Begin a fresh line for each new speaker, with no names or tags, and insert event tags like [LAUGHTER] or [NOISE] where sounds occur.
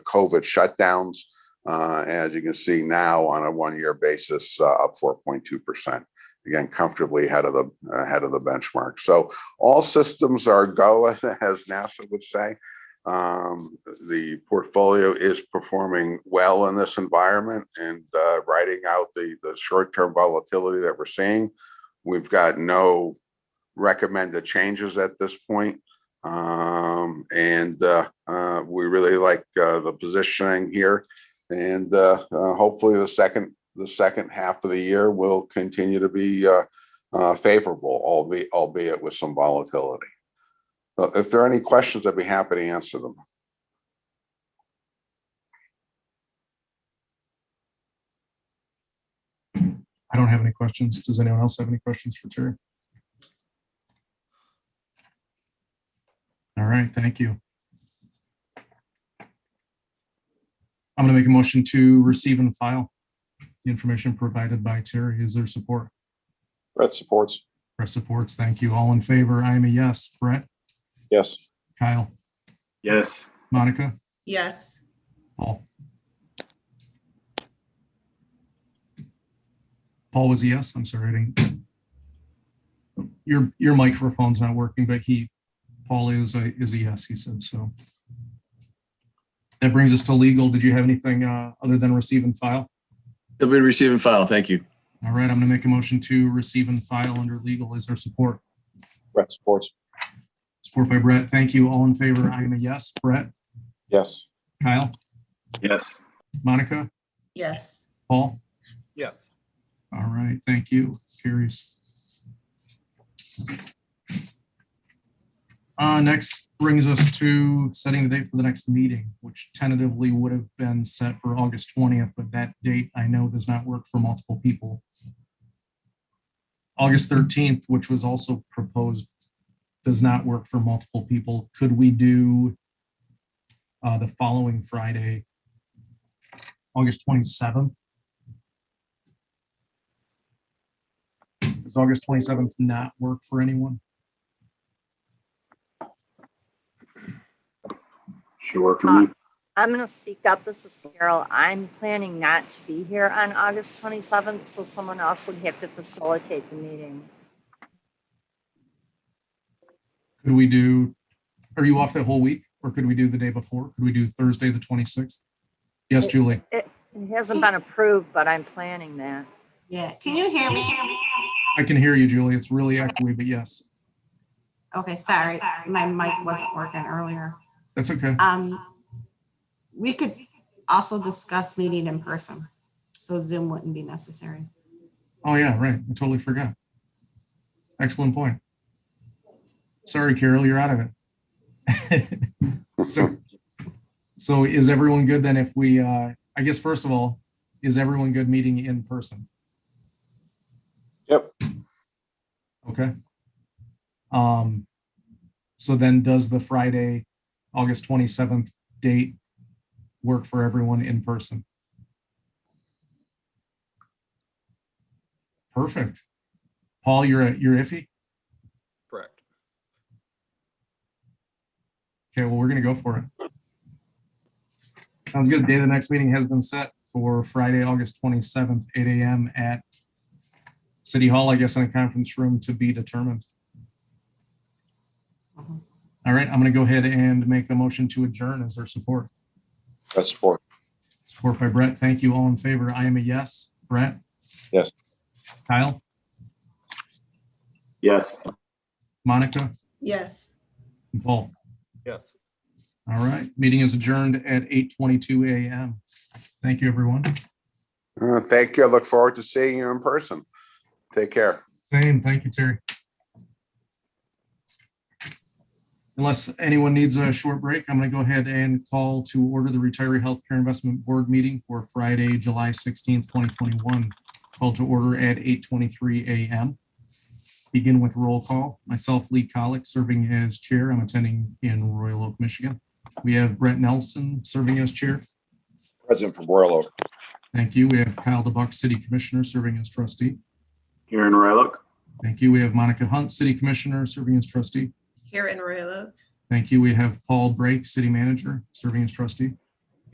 COVID shutdowns. Uh, As you can see now, on a one-year basis, uh, up 4.2%. Again, comfortably ahead of the, ahead of the benchmark. So all systems are go, [LAUGHS] as NASA would say. Um, The portfolio is performing well in this environment and uh, riding out the, the short-term volatility that we're seeing. We've got no recommended changes at this point. Um, And uh, uh, we really like uh, the positioning here. And uh, uh, hopefully the second, the second half of the year will continue to be uh, uh, favorable, albeit, albeit with some volatility. Uh, If there are any questions, I'd be happy to answer them.
I don't have any questions. Does anyone else have any questions for Terry? All right, thank you. I'm going to make a motion to receive and file the information provided by Terry. Is there support?
Brett supports.
Brett supports. Thank you. All in favor? I am a yes. Brett,
Yes.
Kyle,
Yes,
Monica,
Yes,
Paul. Paul was a yes. I'm sorry. I didn't. Your, your microphone's not working, but he, Paul is a, is a yes, he said, so. That brings us to legal. Did you have anything, uh, other than receive and file?
It'll be received and file. Thank you.
All right, I'm gonna make a motion to receive and file under legal. Is there support?
Brett supports.
Support by Brett. Thank you. All in favor? I am a yes. Brett,
Yes.
Kyle,
yes.
Monica,
yes,
Paul?
Yes.
All right, thank you. Carries. Uh, next brings us to setting the date for the next meeting, which tentatively would have been set for August twentieth, but that date I know does not work for multiple people. August thirteenth, which was also proposed, does not work for multiple people. Could we do uh, the following Friday, August twenty-seventh? Does August twenty-seventh not work for anyone?
Sure for me.
Uh, I'm going to speak up. This is Carol. I'm planning not to be here on August 27th, so someone else would have to facilitate the meeting.
Could we do, are you off the whole week or could we do the day before? Could we do Thursday, the twenty-sixth? Yes, Julie.
It hasn't been approved, but I'm planning that.
Yeah, can you hear me?
I can hear you, Julie. It's really echoey, but yes,
Okay, sorry, my mic wasn't working earlier.
that's okay.
Um, we could also discuss meeting in person, so Zoom wouldn't be necessary.
Oh, yeah, right. I totally forgot. Excellent point. Sorry, Carol, you're out of it. [LAUGHS] So, so is everyone good then if we, uh, I guess, first of all, is everyone good meeting in person?
Yep.
Okay. Um, so then does the Friday, August twenty-seventh date work for everyone in person? Perfect. Paul, you're, you're iffy?
Correct.
Okay, well, we're gonna go for it. Sounds good. Day of the next meeting has been set for Friday, August twenty-seventh, eight AM at City Hall, I guess, in a conference room to be determined.
Mhm.
All right, I'm gonna go ahead and make a motion to adjourn as our support.
Brett supports.
Support by Brett. Thank you. All in favor? I am a yes. Brett?
Yes.
Kyle?
Yes.
Monica?
yes.
and Paul?
Yes.
All right, meeting is adjourned at eight twenty-two AM. Thank you, everyone.
Uh, Thank you. I look forward to seeing you in person. Take care.
Same, thank you, Terry. Unless anyone needs a short break, I'm going to go ahead and call to order the Retiree Healthcare Investment Board meeting for Friday, July sixteenth, twenty twenty-one. Called to order at eight twenty-three AM. Begin with roll call. Myself, Lee Colick, serving as chair. I'm attending in Royal Oak, Michigan. We have Brett Nelson serving as chair.
President from Royal Oak.
Thank you. We have Kyle DeBuck, city commissioner, serving as trustee.
Here in Royal Oak.
Thank you. We have Monica Hunt, city commissioner, serving as trustee.
Here in Royal Oak,
Thank you. We have Paul Brake, City Manager, serving as trustee.